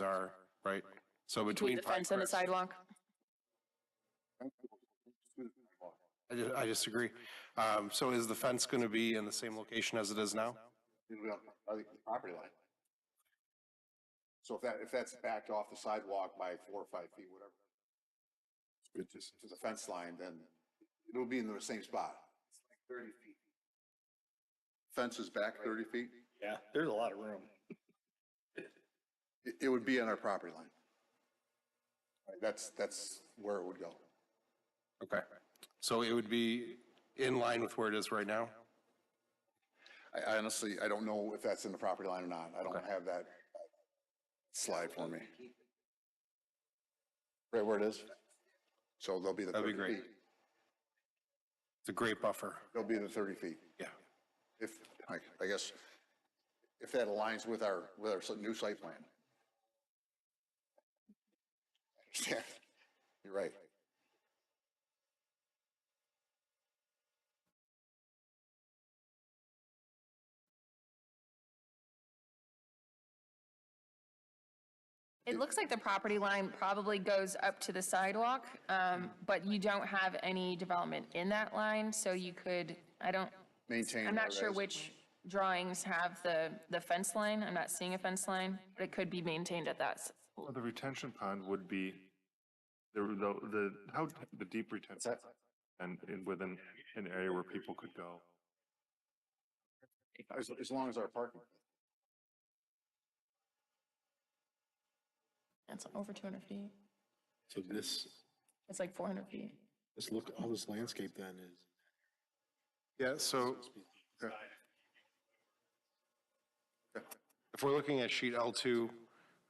are, right? So between. Between the Pine fence and the Crest- sidewalk? I di- I disagree. Um, So is the fence going to be in the same location as it is now? It'll be on, I think, the property line. So if that, if that's backed off the sidewalk by four or five feet, whatever, it's just to the fence line, then it'll be in the same spot. Thirty feet. Fence is back thirty feet? Yeah, there's a lot of room. It, it would be on our property line. Right, That's, that's where it would go. Okay. So it would be in line with where it is right now? I I honestly, I don't know if that's in the property line or not. I don't have that slide for me. Right where it is? So there'll be the That'd be 30 great. feet. It's a great buffer. There'll be the 30 feet. Yeah. If, I I guess, if that aligns with our, with our new site plan. Understand? You're right. It looks like the property line probably goes up to the sidewalk, um, but you don't have any development in that line, so you could, I don't, Maintain. I'm not that sure as- which drawings have the, the fence line. I'm not seeing a fence line, but it could be maintained at that. s- Well, the retention pond would be, the, the, the, how, d- the deep retention and and within an area where people could go. As, as long as our parking. It's over 200 feet. So this, It's like 400 feet. this look, all this landscape then is. Yeah, so if we're looking at sheet L2,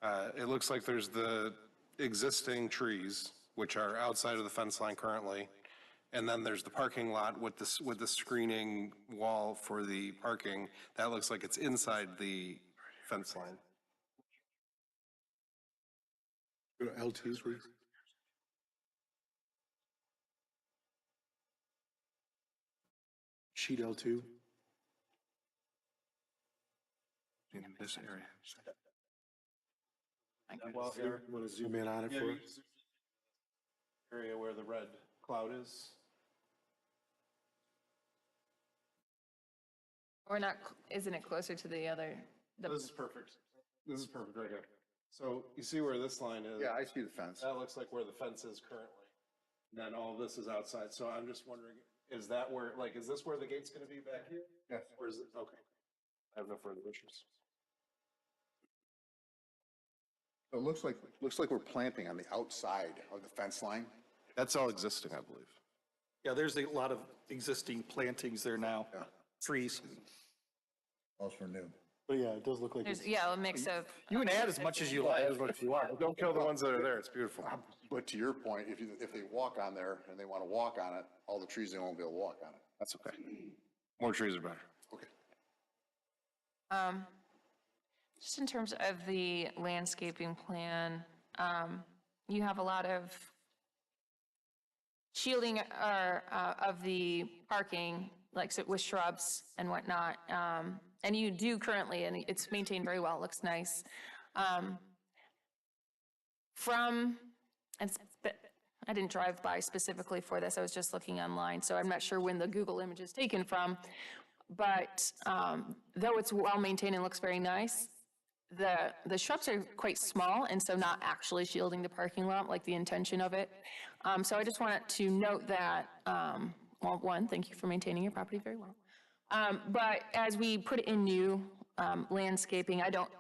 uh, it looks like there's the existing trees, which are outside of the fence line currently, and then there's the parking lot with this, with the screening wall for the parking. That looks like it's inside the fence line. L twos were, sheet L two? In this area. Well, Want to zoom in on it for us? Area where the red cloud is. We're not, cl- isn't it closer to the other, the This is perfect. This is perfect right here. So you see where this line is? Yeah, I see the fence. That looks like where the fence is currently. And then all this is outside, so I'm just wondering, is that where, like, is this where the gate's gonna be back here? Yes. Or is it, okay. I have no further issues. It looks like, looks like we're planting on the outside of the fence line. That's all existing, I believe. yeah, there's a lot of existing plantings there now, trees. Those were new. But yeah, it does look like There's, yeah, a mix of, You can add as much as you like. Don't kill the ones that are there, it's beautiful. But to your point, if you, if they walk on there and they want to walk on it, all the trees, they won't be able to walk on it. That's okay. More trees are better. Okay. um, just in terms of the landscaping plan, um, you have a lot of shielding or, uh, of the parking, like so with shrubs and whatnot. Um, and you do currently, and it's maintained very well, looks nice. Um, from, it's, but I didn't drive by specifically for this, I was just looking online, so I'm not sure when the Google image is taken from. But um, though it's well-maintained and looks very nice, the, the shrubs are quite small, and so not actually shielding the parking lot, like the intention of it. Um, So I just wanted to note that, um, well, one, thank you for maintaining your property very well. Um, But as we put in new um, landscaping, I don't,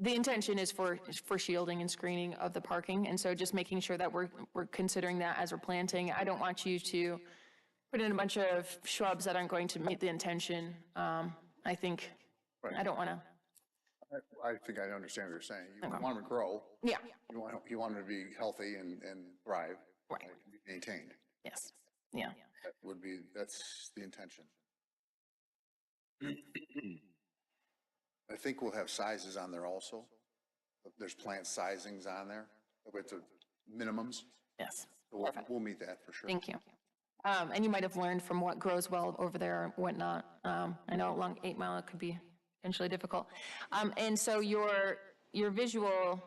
the intention is for, is for shielding and screening of the parking, and so just making sure that we're, we're considering that as we're planting. I don't want you to put in a bunch of shrubs that aren't going to meet the intention. Um, I think, I don't want to, I I think I understand what you're saying. You want them to grow, yeah, you want, you want them to be healthy and, and thrive, right, like, be maintained. yes, yeah. That would be, that's the intention. I think we'll have sizes on there also. There's plant sizings on there with the minimums. Yes, We'll, Perfect. we'll meet that for sure. thank you. Um, and you might have learned from what grows well over there and whatnot. Um, I know along Eight Mile, it could be potentially difficult. Um, and so your, your visual